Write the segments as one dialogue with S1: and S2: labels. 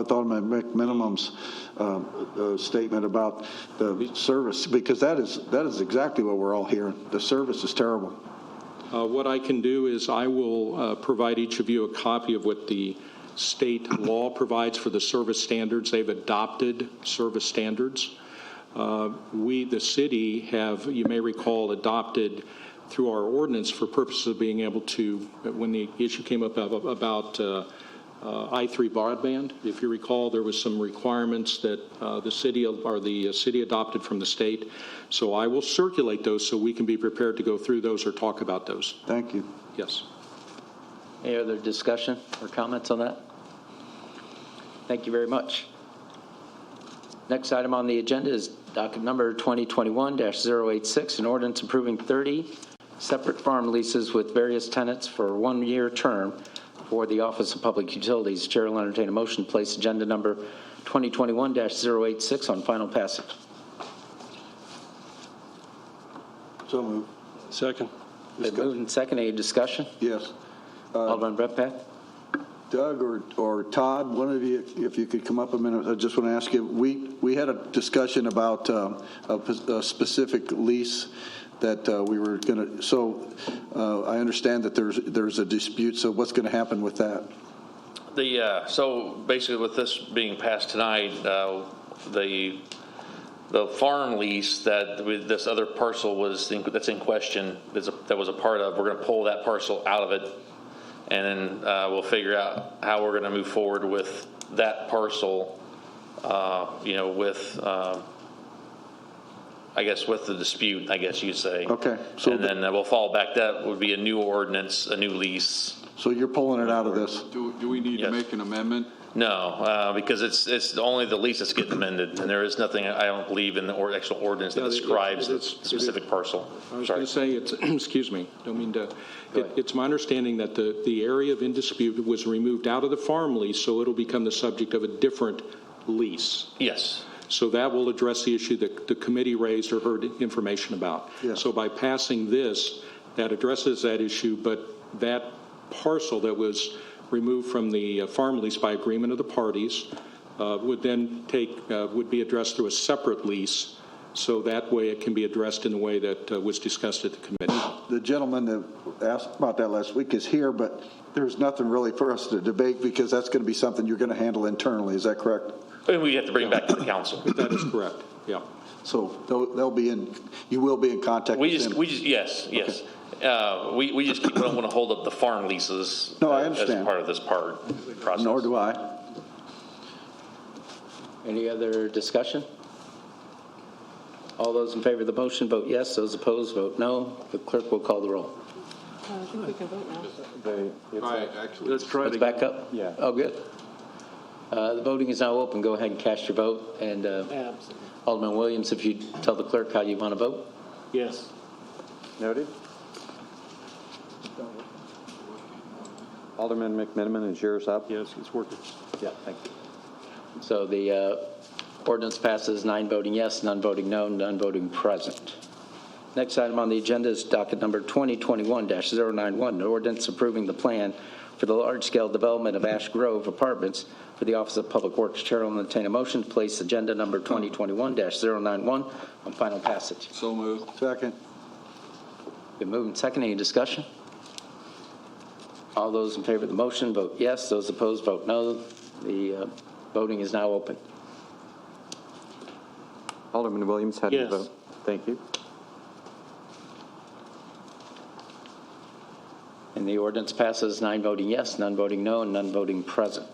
S1: with Alderman McMinimum's um, uh, statement about the service, because that is, that is exactly what we're all hearing. The service is terrible.
S2: Uh, What I can do is I will uh, provide each of you a copy of what the state law provides for the service standards. They've adopted service standards. Uh, We, the city, have, you may recall, adopted through our ordinance for purposes of being able to, when the issue came up ab- about uh, uh, I-3 broadband, if you recall, there was some requirements that uh, the city, or the uh, city adopted from the state. So I will circulate those so we can be prepared to go through those or talk about those.
S1: Thank you.
S2: Yes.
S3: Any other discussion or comments on that? Thank you very much. Next item on the agenda is docket number 2021-086, an ordinance approving 30 separate farm leases with various tenants for a one-year term for the Office of Public Utilities. Chair will entertain a motion to place agenda number 2021-086 on final passage.
S1: So moved.
S4: Second.
S3: Been moved and seconded. Any discussion?
S1: Yes.
S3: Alderman Redpath?
S1: Doug or, or Todd, one of you, if you could come up a minute, I just want to ask you, we, we had a discussion about um, a pos- a specific lease that uh, we were going to, so uh, I understand that there's, there's a dispute, so what's going to happen with that?
S5: The, uh, so basically with this being passed tonight, uh, the, the farm lease that with this other parcel was, in- that's in question, that's a- that was a part of, we're going to pull that parcel out of it. And then uh, we'll figure out how we're going to move forward with that parcel, uh, you know, with, um, I guess, with the dispute, I guess you'd say.
S1: Okay, so
S5: And
S1: the-
S5: then we'll fall back, that would be a new ordinance, a new lease.
S1: So you're pulling it out of this?
S6: Do, do we need to
S5: Yes.
S6: make an amendment?
S5: No, uh, because it's, it's only the lease that's getting amended, and there is nothing, I don't believe, in the or- actual ordinance that
S2: Yeah, it-
S5: describes the
S2: it's- it is-
S5: specific parcel.
S2: I was going
S5: Sorry.
S2: to say, it's, excuse me, don't mean to, it- it's my understanding that the, the area of in dispute was removed out of the farm lease, so it'll become the subject of a different lease.
S5: Yes,
S2: So that will address the issue that the committee raised or heard information about.
S1: Yeah.
S2: So by passing this, that addresses that issue, but that parcel that was removed from the uh, farm lease by agreement of the parties uh, would then take, uh, would be addressed through a separate lease, so that way it can be addressed in the way that uh, was discussed at the committee.
S1: the gentleman that asked about that last week is here, but there's nothing really for us to debate because that's going to be something you're going to handle internally. Is that correct?
S5: and we have to bring it back to the council.
S2: That is correct, yeah.
S1: So they'll, they'll be in, you will be in contact
S5: We
S1: with
S5: just,
S1: them.
S5: we just, yes, yes. Uh, We, we just keep- we don't want to hold up the farm leases.
S1: No, I
S5: uh,
S1: understand.
S5: As part of this part, process.
S1: Nor do I.
S3: Any other discussion? All those in favor of the motion, vote yes. Those opposed, vote no. The clerk will call the roll.
S7: I think we can vote now.
S6: I actually,
S4: Let's try
S3: Let's
S4: to,
S3: back up?
S4: Yeah.
S3: Oh, good. Uh, The voting is now open. Go ahead and cast your vote. And uh, Alderman Williams, if you tell the clerk how you want to vote.
S4: yes.
S8: Noted. Alderman McMiniman, is yours up?
S4: Yes, it's working.
S8: Yeah, thank you.
S3: So the uh, ordinance passes, nine voting yes, none voting no, none voting present. Next item on the agenda is docket number 2021-091, an ordinance approving the plan for the large-scale development of Ash Grove Apartments for the Office of Public Works. Chair will entertain a motion to place agenda number 2021-091 on final passage.
S6: so moved.
S1: Second.
S3: Been moved and seconded. Any discussion? All those in favor of the motion, vote yes. Those opposed, vote no. The uh, voting is now open.
S8: Alderman Williams, how do you
S4: Yes.
S8: vote? Thank you.
S3: And the ordinance passes, nine voting yes, none voting no, and none voting present.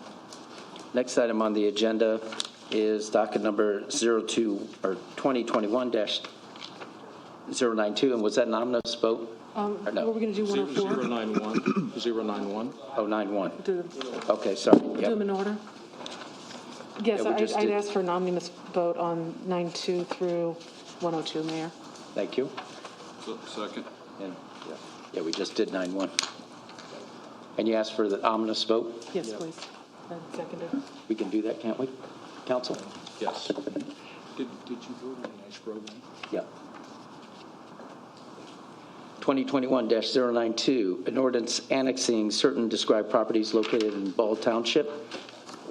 S3: Next item on the agenda is docket number 02, or 2021-092, and was that an ominous vote?
S7: Um,
S3: Or no.
S7: Were we going to do one or four?
S2: 091, 091.
S3: Oh, 91.
S7: Do them-
S3: Okay, sorry.
S7: do
S3: Yep.
S7: them in order? Yes,
S3: we
S7: I-
S3: just
S7: I'd
S3: did-
S7: ask for an omnibus vote on 92 through 102, Mayor.
S3: Thank you.
S6: Se- Second.
S3: And- Yeah, we just did 91. And you asked for the ominous vote?
S7: Yes, please. And seconded.
S3: We can do that, can't we, council?
S2: Yes. Did, did you vote on Ash Grove?
S3: Yep. 2021-092, an ordinance annexing certain described properties located in Ball Township